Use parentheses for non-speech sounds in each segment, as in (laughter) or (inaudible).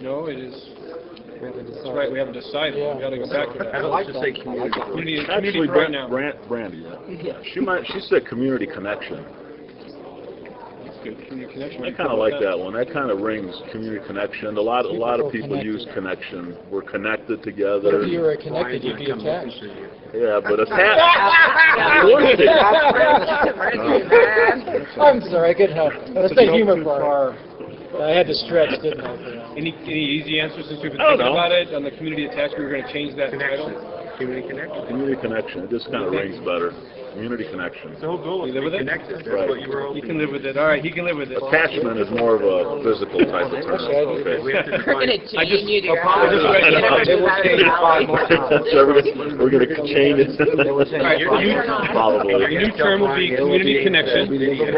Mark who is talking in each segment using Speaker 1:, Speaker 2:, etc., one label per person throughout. Speaker 1: No, it is,
Speaker 2: We haven't
Speaker 1: that's right, we
Speaker 2: decided.
Speaker 1: haven't decided, we gotta go back to that.
Speaker 3: Let's just say community.
Speaker 1: Community,
Speaker 4: Actually,
Speaker 1: community right
Speaker 4: Brand-
Speaker 1: now.
Speaker 4: Brand- Brandy, yeah. She might, she said community connection.
Speaker 1: That's good, community connection.
Speaker 4: I kind of like that one. That kind of rings, community connection. A lot, a lot of people use connection. We're connected
Speaker 2: But
Speaker 4: together.
Speaker 2: If you were connected, you'd be attached.
Speaker 1: (laughs)
Speaker 4: Yeah, but attached,
Speaker 2: I'm sorry, I couldn't help it. That's the humor part. I had to stretch, didn't I? for that?
Speaker 1: Any, any easy answers since we've been
Speaker 4: I don't
Speaker 1: thinking
Speaker 4: know.
Speaker 1: about it, on the community attachment, we're gonna change that title?
Speaker 3: Community connection.
Speaker 4: community connection, it just kind of rings better. Community connection.
Speaker 3: The whole goal is
Speaker 1: You live
Speaker 3: to
Speaker 1: with
Speaker 3: be
Speaker 1: it?
Speaker 3: connected. That's
Speaker 4: Right.
Speaker 3: what you were
Speaker 1: You can
Speaker 3: hoping.
Speaker 1: live with it, all right, he can live with it.
Speaker 4: Attachment is more of a physical type of term.
Speaker 3: Okay, We
Speaker 4: Okay.
Speaker 3: have to
Speaker 5: We're gonna
Speaker 3: define.
Speaker 5: chain you to
Speaker 1: I
Speaker 5: your house.
Speaker 1: just read it out.
Speaker 2: They will change it five more
Speaker 4: (laughs)
Speaker 2: times.
Speaker 4: So we're gonna- We're going to change
Speaker 1: All right,
Speaker 4: it.
Speaker 1: your new, your
Speaker 4: Probably.
Speaker 1: new term will be community connection.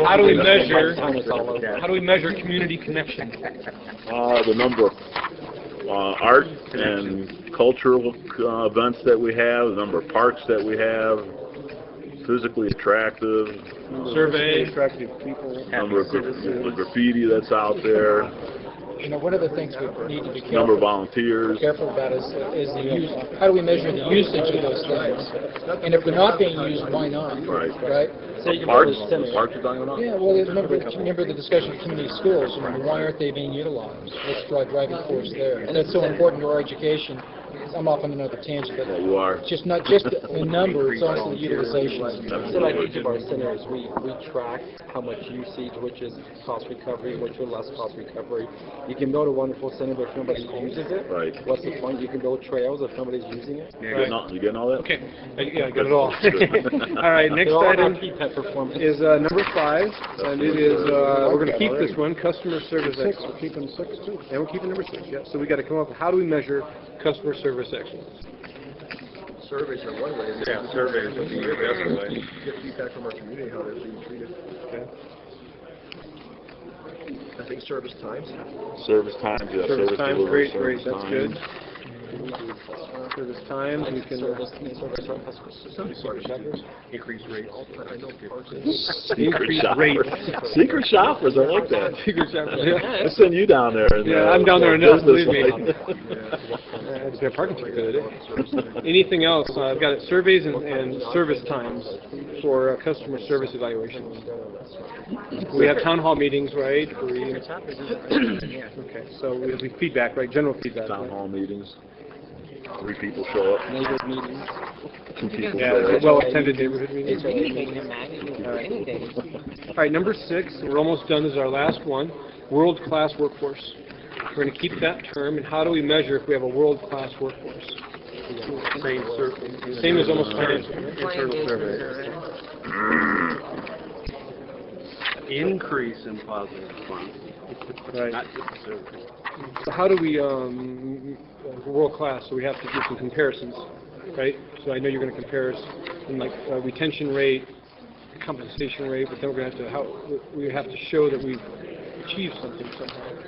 Speaker 1: How do we measure, how do we measure community connection?
Speaker 4: Uh, the number of, uh, art and cultural, uh, events that we have, the number of parks that we have, physically attractive,
Speaker 1: Survey,
Speaker 4: number of gra- the graffiti that's out there,
Speaker 2: You know, one of the things we need to be careful
Speaker 4: number of volunteers.
Speaker 2: careful about is, is the use, how do we measure the usage of those things? And if they're not being used, why not?
Speaker 4: Right.
Speaker 2: Right?
Speaker 4: Parks, parks are dying
Speaker 2: Yeah, well, remember, remember the discussion of community schools, you know, why aren't they being utilized? What's the driving force there? And that's so important to our education. I'm off on another tangent,
Speaker 4: Yeah,
Speaker 2: but
Speaker 4: you are.
Speaker 2: it's just not just the number, it's also the utilization.
Speaker 6: So like each of our centers, we, we track how much usage, which is cost recovery, which are less cost recovery. You can build a wonderful center, but if nobody uses it,
Speaker 4: Right.
Speaker 6: what's the point? You can build trails if nobody's using it.
Speaker 4: You getting all- you getting all that?
Speaker 1: okay, Uh, yeah, I got it all. (laughs) All right, next
Speaker 6: They're all about
Speaker 1: item
Speaker 6: key pet performance.
Speaker 1: is, uh, number five, and it is, uh, we're gonna keep this one, customer service excellence. We're keeping six too. And we're keeping number six, yeah, so we gotta come up, with how do we measure customer service excellence?
Speaker 7: surveys are one way, and
Speaker 3: Yeah, surveys would be your best way.
Speaker 7: get feedback from our community, how they're being treated. I think service times,
Speaker 4: Service times, yeah, service
Speaker 1: Service times,
Speaker 4: delivery,
Speaker 1: great, great,
Speaker 4: service
Speaker 1: that's
Speaker 4: times.
Speaker 1: good. Service times, we can, uh,
Speaker 6: Service, service our customers.
Speaker 3: Increase rates.
Speaker 4: Secret
Speaker 1: Increase
Speaker 4: shoppers. Secret shoppers, I like that.
Speaker 1: figures out, (laughs)
Speaker 4: (laughs)
Speaker 1: yeah.
Speaker 4: I send you down there. and,
Speaker 1: Yeah,
Speaker 4: uh,
Speaker 1: I'm down there enough,
Speaker 4: business
Speaker 1: believe me.
Speaker 4: life.
Speaker 1: I had to pay a parking ticket the other day.
Speaker 4: (laughs)
Speaker 1: Anything else? Uh, I've got it, surveys and, and service times for uh, customer service evaluations. We have town hall meetings, right? We, (clears throat) okay, so we have feedback, right? General feedback.
Speaker 4: Town
Speaker 1: right?
Speaker 4: hall meetings, three people show up,
Speaker 6: Neighborhood meetings.
Speaker 4: two people
Speaker 1: Yeah,
Speaker 4: show up.
Speaker 1: well attended neighborhood meetings.
Speaker 5: Anything, imagine, anything.
Speaker 1: All right, number six, we're almost done, this is our last one, world-class workforce. We're going to keep that term, and how do we measure if we have a world-class workforce?
Speaker 3: Same sur-
Speaker 1: Same as almost financial.
Speaker 3: internal survey. Increase in positive response,
Speaker 1: Right.
Speaker 3: not just survey.
Speaker 1: So how do we, um, world class, so we have to do some comparisons, right? So I know you're gonna compare us in like uh, retention rate, compensation rate, but then we're gonna have to, how, we have to show that we've achieved something somehow.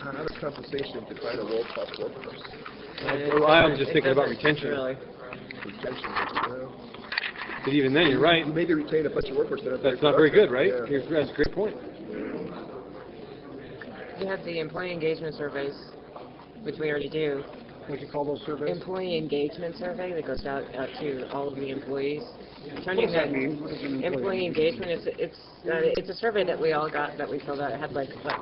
Speaker 7: how how does compensation define a world-class workforce?
Speaker 1: Well, I was just thinking about retention,
Speaker 7: Retention, well,
Speaker 1: but even then, you're right,
Speaker 7: You maybe retain a bunch of workers that are
Speaker 1: that's not very good, right?
Speaker 7: productive, yeah.
Speaker 1: You're- That's a great point.
Speaker 5: You have the employee engagement surveys, which we already do.
Speaker 1: What you call those surveys?
Speaker 5: Employee engagement survey that goes out, out to all of the employees. What does that mean? Employee engagement, it's, it's, uh, it's a survey that we all got, that we filled out. It had like, what,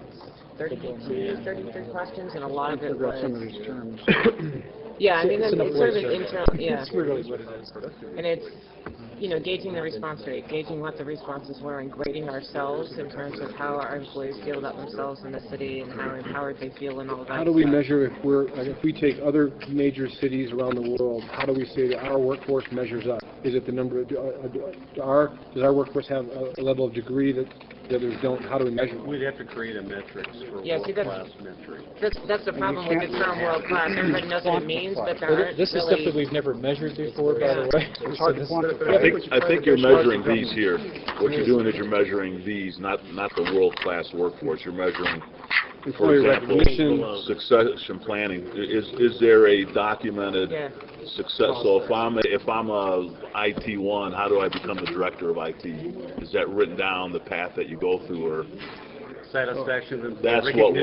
Speaker 5: thirty-two, thirty-three questions, and a lot of it was. (coughs) Yeah, I mean,
Speaker 2: It's
Speaker 5: it's
Speaker 2: an
Speaker 5: it's sort of
Speaker 2: employee
Speaker 5: internal, yeah.
Speaker 2: That's really what it is.
Speaker 5: And it's, you know, gauging the response rate, gauging what the responses were and grading ourselves in terms of how our employees feel about themselves in the city and how empowered they feel and all of that.
Speaker 1: How do we
Speaker 5: stuff.
Speaker 1: measure if we're, like, if we take other major cities around the world, how do we say that our workforce measures up? Is it the number, of- do- uh, do- do our, does our workforce have a a level of degree that the others don't? How do we measure? it?
Speaker 3: We'd have to create a metrics for
Speaker 5: Yes, you gotta-
Speaker 3: world-class metric.
Speaker 5: That's, that's the problem with the term world class. Everybody knows what it means, but there aren't
Speaker 2: This is stuff that
Speaker 5: really.
Speaker 2: we've never measured before, by the way. So this-
Speaker 4: I think, I think you're measuring these here. What you're doing is you're measuring these, not, not the world-class workforce. You're measuring, for
Speaker 1: Employee
Speaker 4: example,
Speaker 1: recognition,
Speaker 4: succession planning. I- Is, is there a documented
Speaker 5: Yeah.
Speaker 4: success? So if I'm, a- if I'm a IT one, how do I become the director of IT? Is that written down, the path that you go through, or?
Speaker 3: Satisfaction and
Speaker 4: That's what
Speaker 3: recognition
Speaker 4: we're-